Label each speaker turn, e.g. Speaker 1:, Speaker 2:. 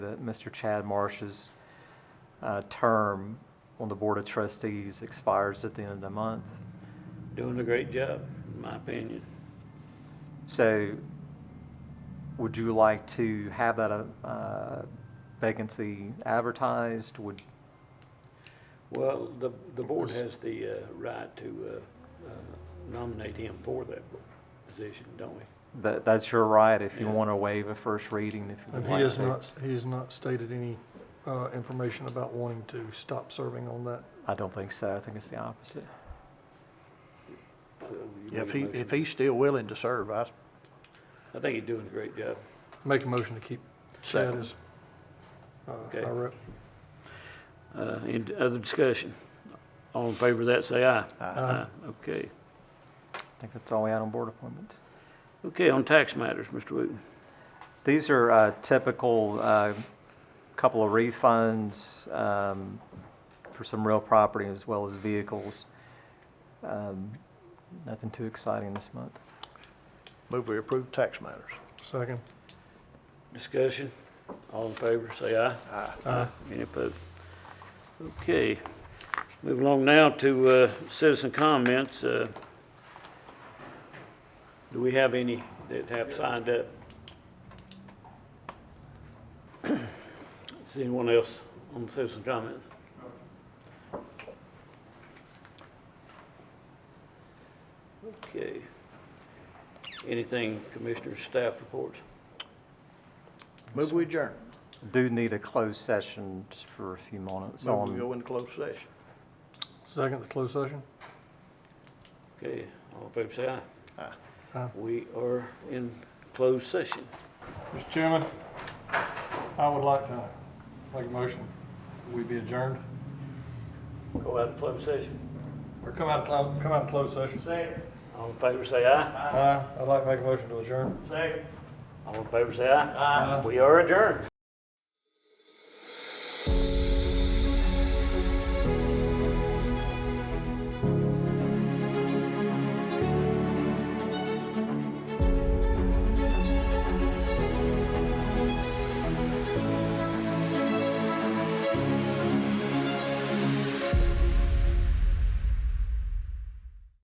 Speaker 1: that Mr. Chad Marsh's uh, term on the Board of Trustees expires at the end of the month.
Speaker 2: Doing a great job, in my opinion.
Speaker 1: So would you like to have that uh, vacancy advertised? Would,
Speaker 2: Well, the, the board has the uh, right to uh, uh, nominate him for that position, don't we?
Speaker 1: that, that's your right if you
Speaker 2: Yeah.
Speaker 1: want to waive a first reading, if you
Speaker 3: And
Speaker 1: would like
Speaker 3: he has
Speaker 1: to.
Speaker 3: not, he has not stated any uh, information about wanting to stop serving on that.
Speaker 1: I don't think so. I think it's the opposite.
Speaker 2: So you
Speaker 4: Yeah, If
Speaker 2: make
Speaker 4: he,
Speaker 2: a
Speaker 4: if
Speaker 2: motion.
Speaker 4: he's still willing to serve, I
Speaker 2: I think he's doing a great job.
Speaker 3: Make a motion to keep Chad
Speaker 4: second.
Speaker 3: as uh,
Speaker 2: Okay.
Speaker 3: our rep.
Speaker 2: Uh, Any other discussion? All in favor of that, say aye.
Speaker 3: Aye.
Speaker 2: Okay.
Speaker 1: I think that's all we had on board appointments.
Speaker 2: Okay, on tax matters, Mr. Wooten.
Speaker 1: These are uh, typical, uh, couple of refunds um, for some real property as well as vehicles. Um, Nothing too exciting this month.
Speaker 4: Move we approve tax matters.
Speaker 3: Second.
Speaker 2: Discussion? All in favor, say aye.
Speaker 4: Aye.
Speaker 3: Aye.
Speaker 2: Any opposed? Okay. Move along now to uh, citizen comments. Uh, Do we have any that have signed up? Is anyone else on citizen comments? Okay. Anything commissioner's staff reports?
Speaker 4: Move we adjourn.
Speaker 1: Do need a closed session just for a few moments
Speaker 4: Move we
Speaker 1: on
Speaker 4: go into closed session.
Speaker 3: Second, the closed session.
Speaker 2: Okay, all in favor, say aye.
Speaker 4: Aye.
Speaker 3: Aye.
Speaker 2: We are in closed session.
Speaker 3: Mr. Chairman, I would like to make a motion. We be adjourned
Speaker 2: Go out of closed session.
Speaker 3: or come out, of come out of closed session.
Speaker 4: Second,
Speaker 2: All in favor, say aye.
Speaker 3: Aye. I'd like to make a motion to adjourn.
Speaker 4: second.
Speaker 2: All in favor, say aye. We are adjourned.